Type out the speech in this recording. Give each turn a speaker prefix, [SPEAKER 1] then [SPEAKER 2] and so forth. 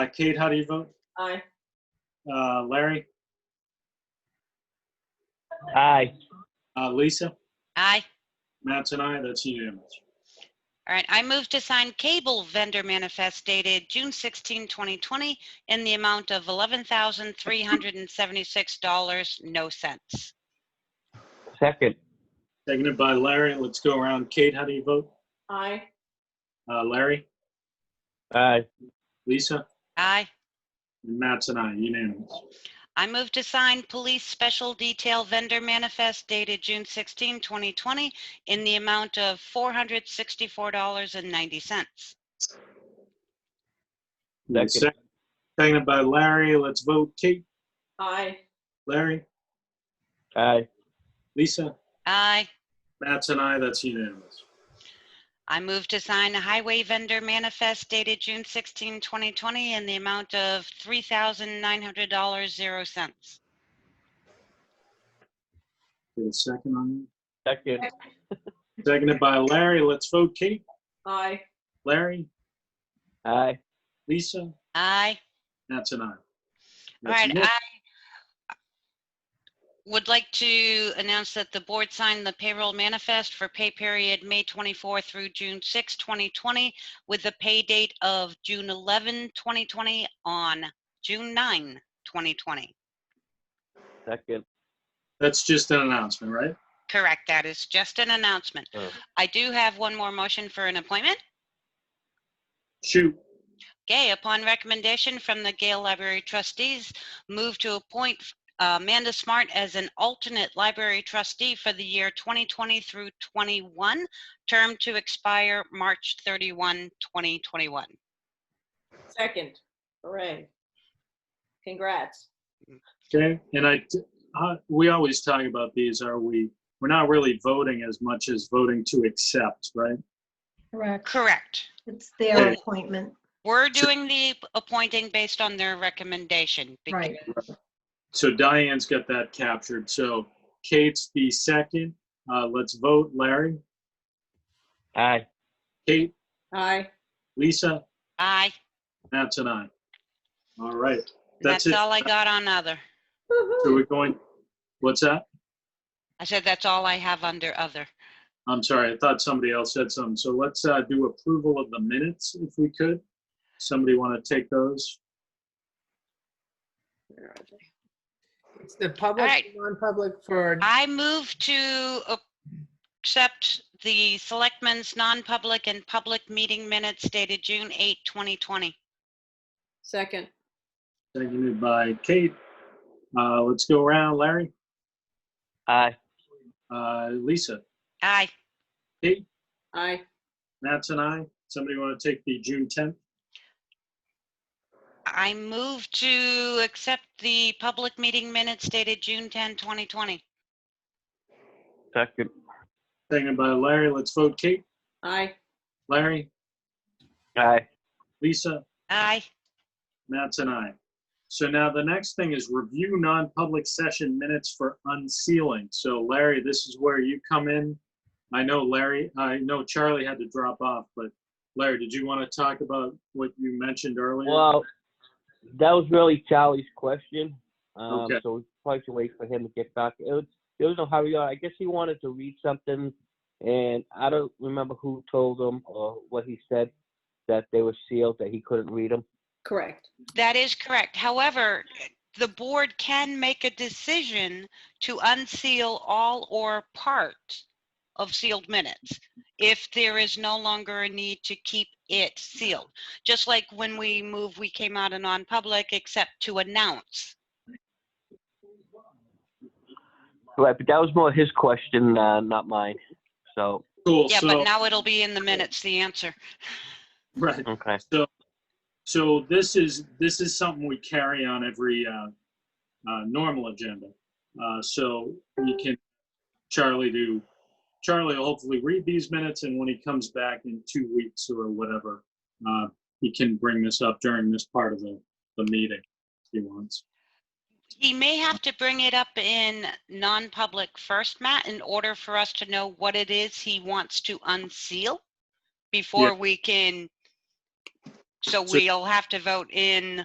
[SPEAKER 1] Uh, Kate, how do you vote?
[SPEAKER 2] Aye.
[SPEAKER 1] Uh, Larry?
[SPEAKER 3] Aye.
[SPEAKER 1] Uh, Lisa?
[SPEAKER 4] Aye.
[SPEAKER 1] Matt's and I, that's unanimous.
[SPEAKER 4] All right, I move to sign cable vendor manifest dated June 16, 2020, in the amount of $11,376, no cents.
[SPEAKER 3] Second.
[SPEAKER 1] Seconded by Larry. Let's go around. Kate, how do you vote?
[SPEAKER 2] Aye.
[SPEAKER 1] Uh, Larry?
[SPEAKER 3] Aye.
[SPEAKER 1] Lisa?
[SPEAKER 4] Aye.
[SPEAKER 1] And Matt's and I, unanimous.
[SPEAKER 4] I move to sign police special detail vendor manifest dated June 16, 2020, in the amount of $464.90.
[SPEAKER 3] Second.
[SPEAKER 1] Sec- Seconded by Larry. Let's vote. Kate?
[SPEAKER 2] Aye.
[SPEAKER 1] Larry?
[SPEAKER 3] Aye.
[SPEAKER 1] Lisa?
[SPEAKER 4] Aye.
[SPEAKER 1] Matt's and I, that's unanimous.
[SPEAKER 4] I move to sign a highway vendor manifest dated June 16, 2020, in the amount of $3,900.00.
[SPEAKER 1] Get a second on
[SPEAKER 3] Second.
[SPEAKER 1] that. Seconded by Larry. Let's vote. Kate?
[SPEAKER 2] Aye.
[SPEAKER 1] Larry?
[SPEAKER 3] Aye.
[SPEAKER 1] Lisa?
[SPEAKER 4] Aye.
[SPEAKER 1] Matt's and I.
[SPEAKER 4] All
[SPEAKER 1] That's
[SPEAKER 4] right,
[SPEAKER 1] unanimous.
[SPEAKER 4] I would like to announce that the board signed the payroll manifest for pay period May 24 through June 6, 2020, with the pay date of June 11, 2020 on June 9, 2020.
[SPEAKER 3] Second.
[SPEAKER 1] That's just an announcement, right?
[SPEAKER 4] Correct, that is just an announcement.
[SPEAKER 3] Oh.
[SPEAKER 4] I do have one more motion for an appointment.
[SPEAKER 1] Shoot.
[SPEAKER 4] Okay, upon recommendation from the Gale Library trustees, move to appoint uh, Amanda Smart as an alternate library trustee for the year 2020 through 21, term to expire March 31, 2021.
[SPEAKER 2] Second. Hooray. Congrats.
[SPEAKER 1] Okay, and I, uh, we always talk about these, are we, we're not really voting as much as voting to accept, right?
[SPEAKER 5] Correct.
[SPEAKER 4] Correct.
[SPEAKER 5] It's
[SPEAKER 1] Yeah.
[SPEAKER 5] their appointment.
[SPEAKER 4] We're
[SPEAKER 1] So-
[SPEAKER 4] doing the appointing based on their recommendation. because-
[SPEAKER 5] Right.
[SPEAKER 1] So Diane's got that captured. So Kate's the second. Uh, let's vote. Larry,
[SPEAKER 3] Aye.
[SPEAKER 1] Kate,
[SPEAKER 2] Aye.
[SPEAKER 1] Lisa,
[SPEAKER 4] Aye.
[SPEAKER 1] Matt's and I. All right. That's
[SPEAKER 4] That's
[SPEAKER 1] it.
[SPEAKER 4] all I got on other.
[SPEAKER 1] So
[SPEAKER 2] Woo-hoo.
[SPEAKER 1] we're going, what's that?
[SPEAKER 4] I said that's all I have under other.
[SPEAKER 1] I'm sorry, I thought somebody else said something. So let's, uh, do approval of the minutes if we could. Somebody want to take those?
[SPEAKER 6] It's the public,
[SPEAKER 4] right.
[SPEAKER 6] non-public for,
[SPEAKER 4] I move to a- accept the selectmen's non-public and public meeting minutes dated June 8, 2020.
[SPEAKER 2] Second.
[SPEAKER 1] Seconded by Kate. Uh, let's go around. Larry,
[SPEAKER 3] Aye.
[SPEAKER 1] uh, Lisa,
[SPEAKER 4] Aye.
[SPEAKER 2] Aye.
[SPEAKER 1] Matt's and I. Somebody want to take the June 10th?
[SPEAKER 4] I move to accept the public meeting minutes dated June 10, 2020.
[SPEAKER 3] Second.
[SPEAKER 1] Seconded by Larry. Let's vote. Kate,
[SPEAKER 2] Aye.
[SPEAKER 1] Larry,
[SPEAKER 3] Aye.
[SPEAKER 1] Lisa,
[SPEAKER 4] Aye.
[SPEAKER 1] Matt's and I. So now the next thing is review non-public session minutes for unsealing. So Larry, this is where you come in. I know Larry, I know Charlie had to drop off, but Larry, did you want to talk about what you mentioned earlier?
[SPEAKER 3] Well, that was really Charlie's question. Um,
[SPEAKER 1] Okay.
[SPEAKER 3] So we probably should wait for him to get back. It was, there was no hurry on. I guess he wanted to read something, and I don't remember who told him or what he said that they were sealed, that he couldn't read them.
[SPEAKER 2] Correct.
[SPEAKER 4] That is correct. However, the board can make a decision to unseal all or part of sealed minutes if there is no longer a need to keep it sealed. Just like when we move, we came out of non-public except to announce.
[SPEAKER 3] Right, but that was more his question, uh, not mine. So,
[SPEAKER 1] Cool,
[SPEAKER 4] Yeah,
[SPEAKER 1] so-
[SPEAKER 4] but now it'll be in the minutes, the answer.
[SPEAKER 1] Right.
[SPEAKER 3] okay.
[SPEAKER 1] So this is, this is something we carry on every uh, uh, normal agenda. Uh, So we can, Charlie do, Charlie will hopefully read these minutes and when he comes back in two weeks or whatever, uh, he can bring this up during this part of the, the meeting if he wants.
[SPEAKER 4] He may have to bring it up in non-public first, Matt, in order for us to know what it is he wants to unseal before we can So we'll have to vote in